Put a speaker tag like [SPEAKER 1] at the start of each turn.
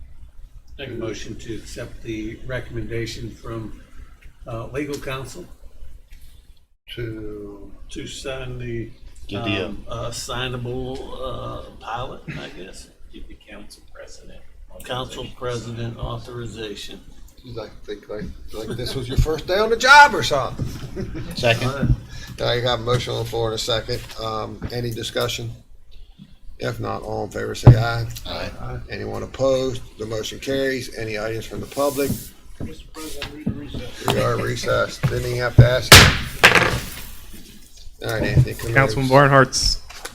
[SPEAKER 1] Make a motion to accept the recommendation from uh, legal counsel
[SPEAKER 2] to,
[SPEAKER 1] to sign the
[SPEAKER 3] Good deal.
[SPEAKER 1] um, uh, signable uh, pilot, I guess.
[SPEAKER 4] Give the council president.
[SPEAKER 1] Council president authorization.
[SPEAKER 2] like, think like, like this was your first day on the job or something.
[SPEAKER 3] Second?
[SPEAKER 2] I got a motion on the floor in a second. Um, any discussion? If not, all in favor, say aye.
[SPEAKER 3] Aye.
[SPEAKER 2] Anyone opposed? The motion carries. Any audience from the public?
[SPEAKER 5] Mr. President, read the recess.
[SPEAKER 2] We are recessed. Didn't even have to ask. you. All right, Anthony. come here.
[SPEAKER 6] Councilman Barnhart's